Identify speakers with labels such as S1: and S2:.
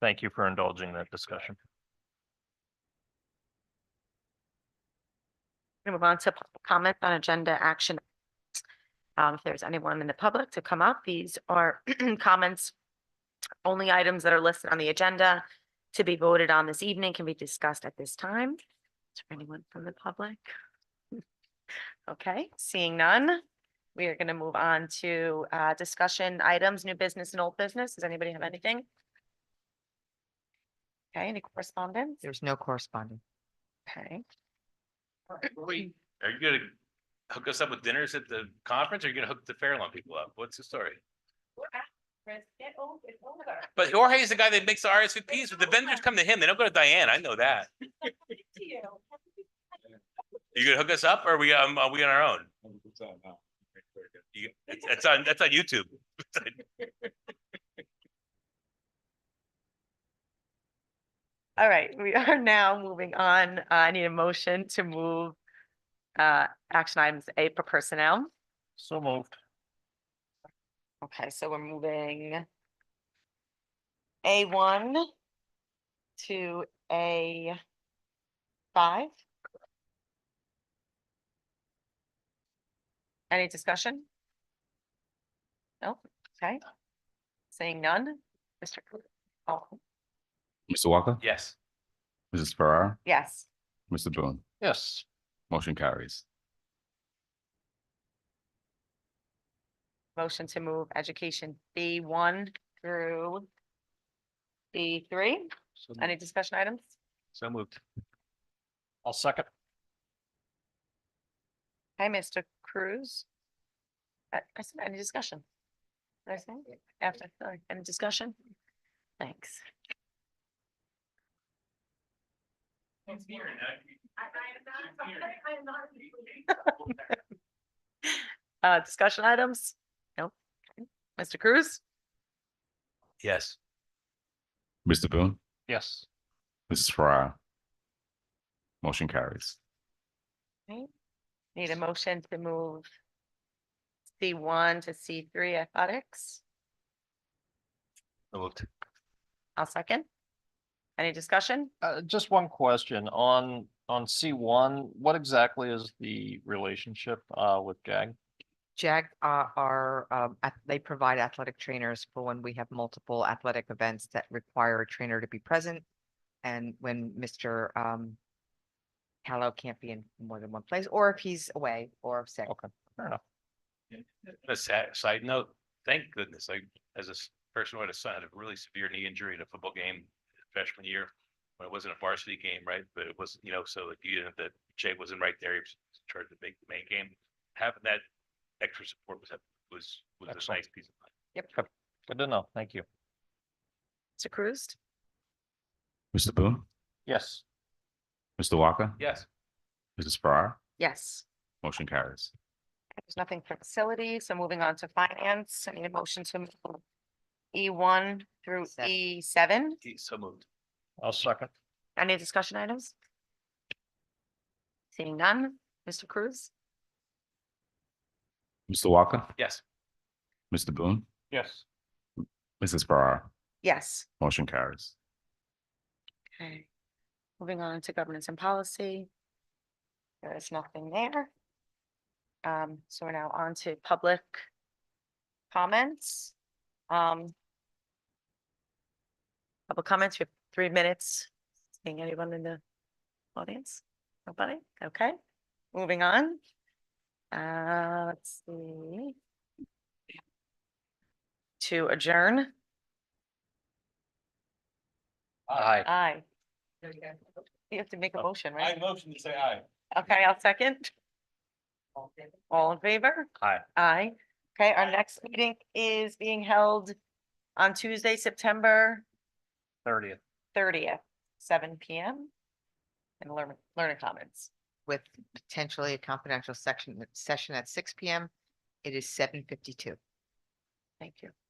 S1: Thank you for indulging that discussion.
S2: Gonna Move on to public comments on agenda action. items. Um, if there's anyone in the public to come up, these are comments. Only items that are listed on the agenda to be voted on this evening can be discussed at this time. Is there anyone from the public? Okay, seeing none, we are gonna move on to uh discussion items, new business and old business. Does anybody have anything? Okay, any correspondence?
S3: There's no corresponding.
S2: Okay.
S4: Wait, are you gonna hook us up with dinners at the conference? or Are you gonna hook the Fairlawn people up? What's the story? But Jorge is the guy that makes the RSVPs. The vendors come to him. They don't go to Diane. I know that. You gonna hook us up or are we, um, are we on our own? You, it's, it's on, that's on YouTube.
S2: All right, we are now moving on. Uh, I need a motion to move uh, action items A for personnel.
S1: So moved.
S2: Okay, so we're moving A one to A five. Any discussion? No, okay. Saying none, Mr. Cl- Oh,
S5: Mr. Walker?
S4: Yes.
S5: Mrs. Farrar?
S2: yes.
S5: Mr. Boone?
S1: Yes.
S5: Motion carries.
S2: Motion to move education B one through B three. Any discussion items?
S4: So moved.
S1: I'll second.
S2: Hi, Mr. Cruz. I, I said, any discussion? Did I say? After, sorry, any discussion? Thanks. Uh, discussion items? Nope. Okay. Mr. Cruz?
S4: Yes.
S5: Mr. Boone?
S1: Yes.
S5: Mrs. Farrar? Motion carries.
S2: Need a motion to move C one to C three athletics.
S4: So moved.
S2: I'll second. Any discussion?
S1: Uh, just one question on, on C one, what exactly is the relationship, uh, with JAG?
S3: Jack uh, are, um, ath- they provide athletic trainers for when we have multiple athletic events that require a trainer to be present. And when Mr. um, Callow can't be in more than one place, or if he's away or sick.
S1: Okay. Fair enough.
S4: A sa- side note, thank goodness, I, as a s- person who had a son, had a really severe knee injury in a football game freshman year. When it wasn't a varsity game, right, but it was, you know, so like you, didn't that Jay wasn't right there, he was charged to make the main game. Having that extra support was, was, was a
S1: Excellent.
S4: nice piece of mind.
S1: Good to know. Thank you.
S2: Mr. Cruz?
S5: Mr. Boone?
S1: Yes.
S5: Mr. Walker?
S4: Yes.
S5: Mrs. Farrar?
S2: Yes.
S5: Motion carries.
S2: There's nothing for facilities, so moving on to finance, I need a motion to move E one through
S3: Seven.
S2: E seven.
S4: He- So moved.
S1: I'll second.
S2: Any discussion items? Seeing none, Mr. Cruz?
S5: Mr. Walker?
S4: Yes.
S5: Mr. Boone?
S1: Yes.
S5: Mrs. Farrar?
S2: Yes.
S5: Motion carries.
S2: Okay. Moving on to governance and policy. There is nothing there. Um, so we're now on to public comments. Um. Public comments, we have three minutes. Seeing anyone in the audience? Nobody? Okay, moving on. Uh, let's see. To adjourn.
S1: Aye.
S2: Aye. You have to make a
S4: Oh,
S2: motion, right?
S4: motion to say aye.
S2: Okay, I'll second. All in favor?
S1: Aye.
S2: Aye. Okay, our next meeting is being held on Tuesday, September
S1: Thirtieth.
S2: thirtieth, seven P M. And learn, learning commons.
S3: With potentially a confidential section, session at six PM. It is seven fifty-two.
S2: Thank you.